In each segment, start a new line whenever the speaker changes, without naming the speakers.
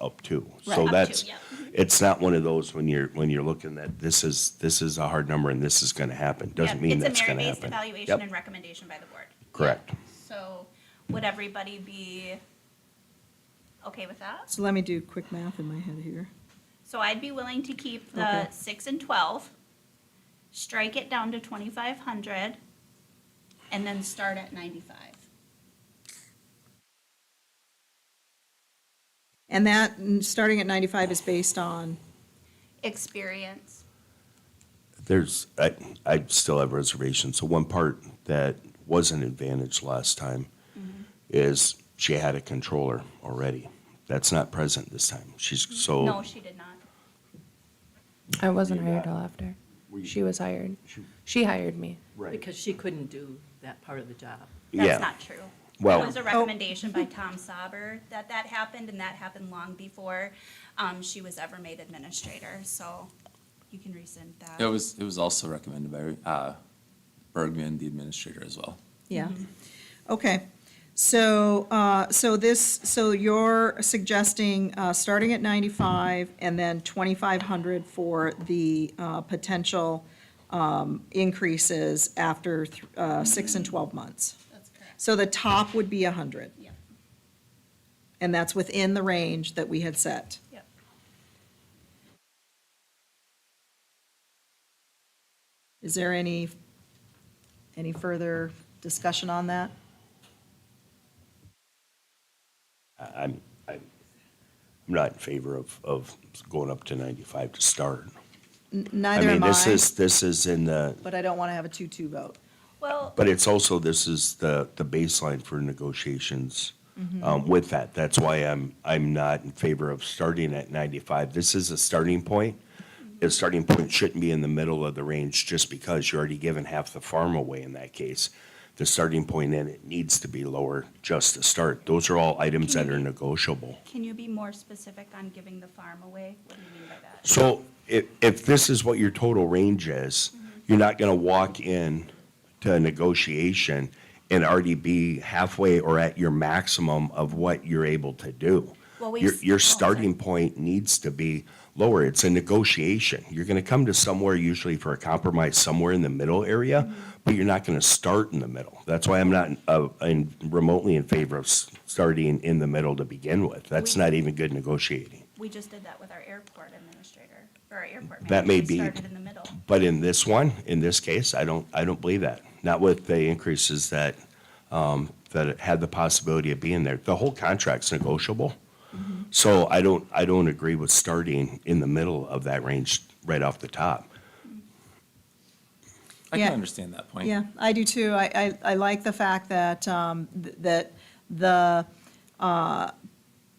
up to.
Right, up
So
to,
that's,
yeah. Mm-hmm.
it's not one of those when you're, when you're looking at, this is, this is a hard number and this is gonna happen. Doesn't
Yep,
mean that's gonna
It's
happen.
a merit-based evaluation
Yep,
and recommendation by the board.
Correct.
So would everybody be okay with that?
So let me do quick math in my head here.
So I'd be willing to keep the
Okay.
six and twelve, strike it down to twenty-five hundred, and then start at ninety-five.
And that, mm, starting at 95 is based on,
Experience.
There's, I, I still have reservations. So one part that was an advantage last time
Mm-hmm.
is she had a controller already. That's not present this time. She's,
Mm-hmm.
so,
No, she did not.
I wasn't
You got-
hired till after.
Were you-
She was hired.
She-
She hired me.
right,
Because she couldn't do that part of the job.
Yeah.
That's not true.
Well-
It was a recommendation by Tom Sauber that that happened, and that happened long before um, she was ever made administrator, so you can rescind that.
It was, it was also recommended by uh, Bergman, the administrator, as well.
yeah.
Mm-hmm.
Okay, so, uh, so this, so you're suggesting uh, starting at 95 and then 2,500 for the uh, potential um, increases after th- uh, six and 12 months.
That's correct.
So the top would be 100,
Yep,
and that's within the range that we had set.
yep.
Is there any, any further discussion on that?
I- I'm, I'm I'm not in favor of, of going up to ninety-five to start.
Neither am
mean, this
I,
is, this is in the,
but I don't want to have a two-two vote.
Well,
but it's also, this is the, the baseline for negotiations um, with that. That's why I'm, I'm not in favor of starting at ninety-five. This is a starting point. The starting point shouldn't be in the middle of the range just because you're already giving half the farm away in that case. The starting point, then, it needs to be lower just to start. Those are all items that are negotiable.
can you be more specific on giving the farm away? What do you mean by that?
So if, if this is what your total range is, you're not gonna walk in to a negotiation and already be halfway or at your maximum of what you're able to do.
Well, we
Your,
s- oh,
your
sorry.
starting point needs to be lower. It's a negotiation. You're gonna come to somewhere usually for a compromise somewhere in the middle area, but you're not gonna start in the middle. That's why I'm not uh, in- remotely in favor of s- starting in the middle to begin with. That's
We-
not even good negotiating.
We just did that with our airport administrator, or our airport manager.
That may
We
be-
Started in the middle.
But in this one, in this case, I don't, I don't believe that. Not with the increases that, um, that it had the possibility of being there. The whole contract's negotiable. So I don't, I don't agree with starting in the middle of that range right off the top.
I
Yeah.
can understand that point.
Yeah, I do too. I, I, I like the fact that, um, th- that the, uh,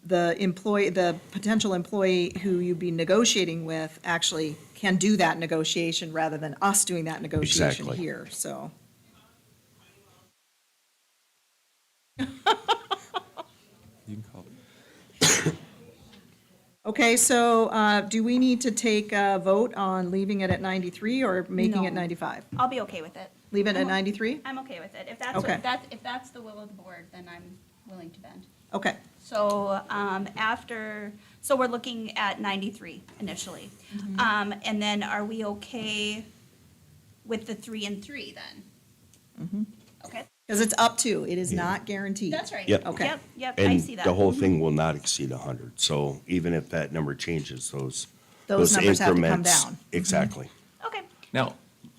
the employee, the potential employee who you'd be negotiating with actually can do that negotiation rather than us doing that negotiation
Exactly.
here, so.
You can call it.
Okay, so, uh, do we need to take a vote on leaving it at ninety-three or making it
No.
ninety-five?
I'll be okay with it.
Leave it at
I'm o-
ninety-three?
I'm okay with it. If that's,
Okay.
what- that, if that's the will of the board, then I'm willing to bend.
Okay,
So um, after, so we're looking at 93 initially.
Mm-hmm.
Um, And then are we okay with the three and three then?
Mm-hmm.
Okay,
because it's up to, it is not guaranteed.
that's right.
Yep.
Okay.
Yep, yep, I
And
see that. Mm-hmm.
the whole thing will not exceed hundred. So even if that number changes, those,
Those
those
numbers have to come
increments-
down.
Exactly.
Okay,
Now,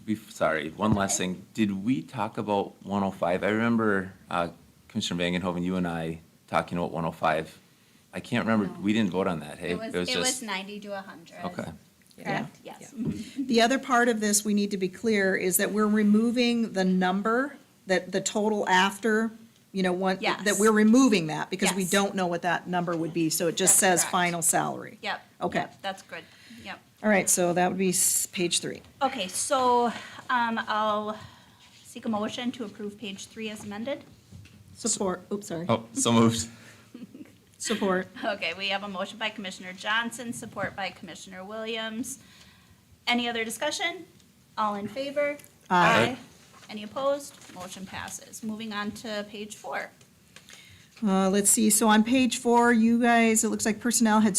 bef- sorry, one last thing. Did we talk about 105? I remember uh, Commissioner Vangenhoven, you and I talking about 105. I can't remember,
No.
we didn't vote on that, hey?
it was, it was
just-
90 to 100.
Okay.
Correct, yes.
The other part of this, we need to be clear, is that we're removing the number, that the total after, you know, one,
Yes.
that we're removing that because we
Yes.
don't know what that number would be, so it just says
That's correct.
final salary.
Yep.
Okay.
yep, That's good, yep.
All right, so that would be s- page three.
Okay, so um, I'll seek a motion to approve page three as amended.
Support, oops, sorry.
Oh, so moved.
Support.
Okay, we have a motion by Commissioner Johnson, support by Commissioner Williams. Any other discussion? All in favor?
Aye.
Any opposed? Motion passes. Moving on to page four.
Uh, let's see, so on page four, you guys, it looks like personnel had